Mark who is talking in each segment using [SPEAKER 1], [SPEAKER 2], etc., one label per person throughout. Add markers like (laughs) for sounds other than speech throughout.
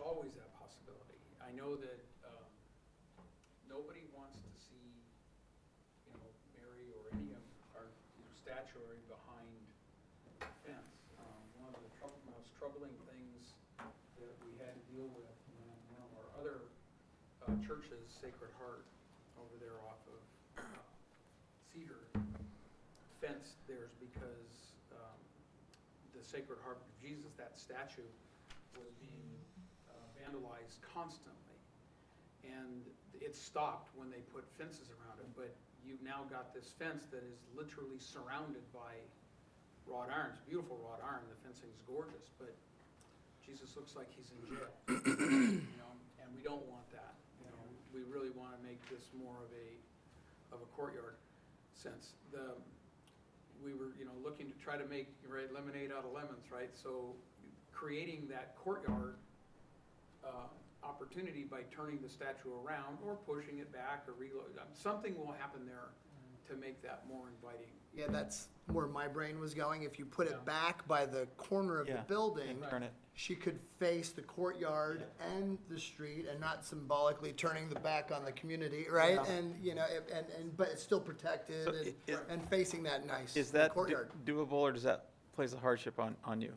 [SPEAKER 1] always that possibility. I know that um, nobody wants to see, you know, Mary or any of our you know, statuary behind the fence. Um, One of the trou- most troubling things that we had to deal with when one of our other uh, churches, Sacred Heart, over there off of uh, Cedar, fenced theirs because um, the Sacred Heart of Jesus, that statue, was being uh, vandalized constantly. And it stopped when they put fences around it, but you've now got this fence that is literally surrounded by wrought irons, beautiful wrought iron, the fencing's gorgeous, but Jesus looks like he's in jail, you know, and we don't want that, you know, we really want to make this more of a, of a courtyard sense. The, we were, you know, looking to try to make, right, lemonade out of lemons, right? So creating that courtyard uh, opportunity by turning the statue around or pushing it back or reload, something will happen there to make that more inviting.
[SPEAKER 2] Yeah, that's where my brain was going. If you put
[SPEAKER 1] Yeah.
[SPEAKER 2] it back by the corner of
[SPEAKER 3] Yeah,
[SPEAKER 2] the building,
[SPEAKER 3] and Turn it.
[SPEAKER 2] she could face the courtyard and the street and not symbolically turning the back on the community, right?
[SPEAKER 3] Yeah.
[SPEAKER 2] And, you know, it- and, and, but it's still protected
[SPEAKER 3] So
[SPEAKER 2] and,
[SPEAKER 3] i- i-
[SPEAKER 2] and facing that nice
[SPEAKER 3] Is that do-
[SPEAKER 2] courtyard.
[SPEAKER 3] doable, or does that place a hardship on, on you?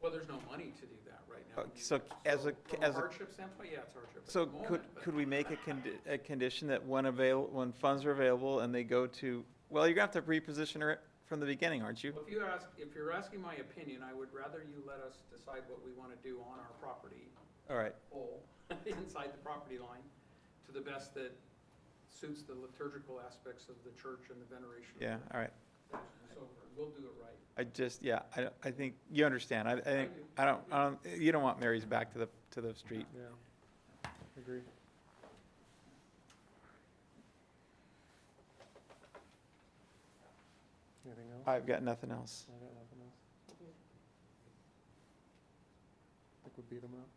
[SPEAKER 1] Well, there's no money to do that right now.
[SPEAKER 3] Uh, so as a-
[SPEAKER 1] From a
[SPEAKER 3] as a-
[SPEAKER 1] hardship standpoint, yeah, it's a hardship. at
[SPEAKER 3] So
[SPEAKER 1] the moment,
[SPEAKER 3] could,
[SPEAKER 1] but-
[SPEAKER 3] could we make a condi, a condition that when avail, when funds are available and they go to, well, you're gonna have to reposition it from the beginning, aren't you?
[SPEAKER 1] Well, If you ask, if you're asking my opinion, I would rather you let us decide what we want to do on our property
[SPEAKER 3] All right,
[SPEAKER 1] pole (laughs) inside the property line to the best that suits the liturgical aspects of the church and the veneration. of
[SPEAKER 3] yeah, all right.
[SPEAKER 1] the church And so forth. We'll do it right.
[SPEAKER 3] I just, yeah, I, don't- I think, you understand, I, I think, I don't, I don't, you don't want Mary's back to the, to the street.
[SPEAKER 4] Yeah, agree. Anything else?
[SPEAKER 3] I've got nothing else.
[SPEAKER 4] I got nothing else. Think we beat them up.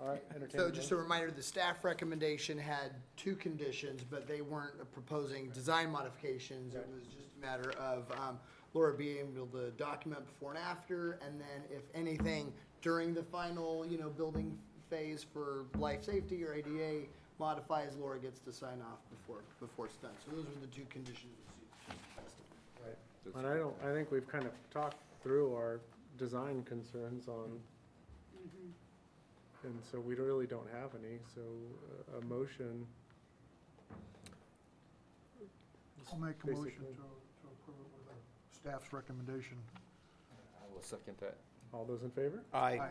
[SPEAKER 4] All right, entertain a
[SPEAKER 2] So just a
[SPEAKER 4] motion.
[SPEAKER 2] reminder, the staff recommendation had two conditions, but they weren't proposing design modifications. It
[SPEAKER 4] Right.
[SPEAKER 2] was just a matter of um, Laura being able to document before and after, and then if anything during the final, you know, building phase for life safety or ADA modifies, Laura gets to sign off before, before it's done. So those were the two conditions.
[SPEAKER 4] Right. And I don't, I think we've kind of talked through our design concerns on, and so we don't- really don't have any, so uh, a motion,
[SPEAKER 5] I'll make a
[SPEAKER 4] Basically.
[SPEAKER 5] motion to, to approve it with a staff's recommendation.
[SPEAKER 6] I will second that.
[SPEAKER 4] all those in favor?
[SPEAKER 3] I,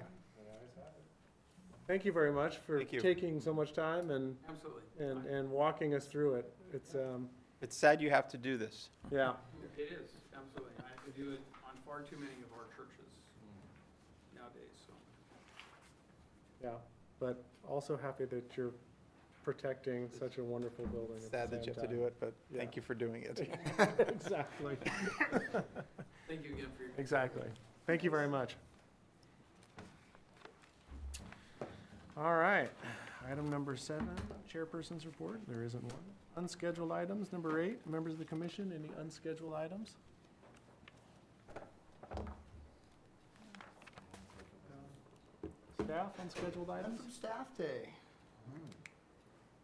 [SPEAKER 4] Thank you very much for
[SPEAKER 3] Thank you.
[SPEAKER 4] taking so much time and,
[SPEAKER 1] Absolutely.
[SPEAKER 4] and, and walking us through it. It's, um,
[SPEAKER 3] it's sad you have to do this.
[SPEAKER 4] yeah.
[SPEAKER 1] It is, absolutely. I have to do it on far too many of our churches nowadays, so.
[SPEAKER 4] Yeah, but also happy that you're protecting such a wonderful building at the
[SPEAKER 3] Sad that you
[SPEAKER 4] same
[SPEAKER 3] have to do
[SPEAKER 4] time.
[SPEAKER 3] it, but thank
[SPEAKER 4] Yeah.
[SPEAKER 3] you for doing it.
[SPEAKER 4] (laughs) Exactly,
[SPEAKER 1] Thank you again for your.
[SPEAKER 4] exactly. Thank you very much. All right, item number seven, chairperson's report. There isn't one. Unscheduled items, number eight, members of the commission, any unscheduled items? Staff, unscheduled
[SPEAKER 2] And
[SPEAKER 4] items?
[SPEAKER 2] from staff day.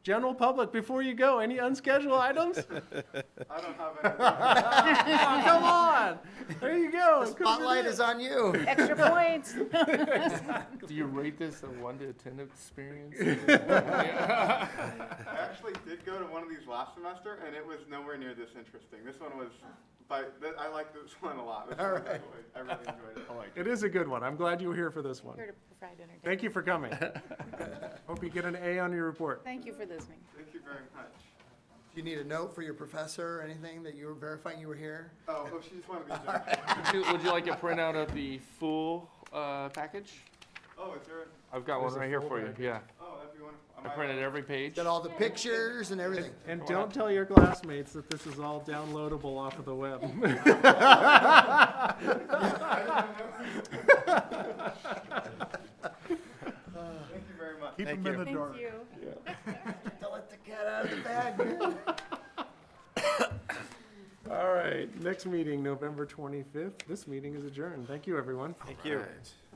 [SPEAKER 4] General public, before you go, any unscheduled items?
[SPEAKER 6] (laughs)
[SPEAKER 4] I don't have any. Come on, there you go.
[SPEAKER 5] Oh,
[SPEAKER 2] The spotlight is on you.
[SPEAKER 7] (laughs) Extra points.
[SPEAKER 6] Do you rate this a one to ten experience?
[SPEAKER 4] (laughs)
[SPEAKER 8] I actually did go to one of these last semester, and it was nowhere near this interesting. This one was, but th- I like this (laughs) one a lot. This one was- I really enjoyed
[SPEAKER 6] (laughs)
[SPEAKER 8] it. I like
[SPEAKER 4] It is a good one. I'm glad you were here for this
[SPEAKER 7] Here
[SPEAKER 4] one.
[SPEAKER 7] to provide entertainment.
[SPEAKER 4] Thank you for coming. Hope you get an A on your report.
[SPEAKER 7] Thank you for listening.
[SPEAKER 8] Thank you very much.
[SPEAKER 2] Do you need a note for your professor or anything that you were verifying you were here?
[SPEAKER 8] Oh, oh she's one of these.
[SPEAKER 6] (laughs)
[SPEAKER 8] Judges.
[SPEAKER 6] Would you, would you like a printout of the full, uh, package?
[SPEAKER 8] Oh, is there? A,
[SPEAKER 6] I've got one
[SPEAKER 4] There's a
[SPEAKER 6] right here
[SPEAKER 4] full
[SPEAKER 6] for you,
[SPEAKER 4] package.
[SPEAKER 6] yeah.
[SPEAKER 8] oh, that'd be wonderful. Am
[SPEAKER 6] I printed every page.
[SPEAKER 2] Got all the pictures and everything?
[SPEAKER 4] And don't tell your classmates that this is all downloadable off of the web.
[SPEAKER 8] Thank you very much.
[SPEAKER 5] Keep
[SPEAKER 3] Thank
[SPEAKER 5] them in
[SPEAKER 3] you.
[SPEAKER 5] the dark.
[SPEAKER 7] Thank you.
[SPEAKER 2] Don't let the cat out of the bag, man.
[SPEAKER 4] All right, next meeting, November 25th. This meeting is adjourned. Thank you, everyone.
[SPEAKER 3] Thank you.
[SPEAKER 6] Right.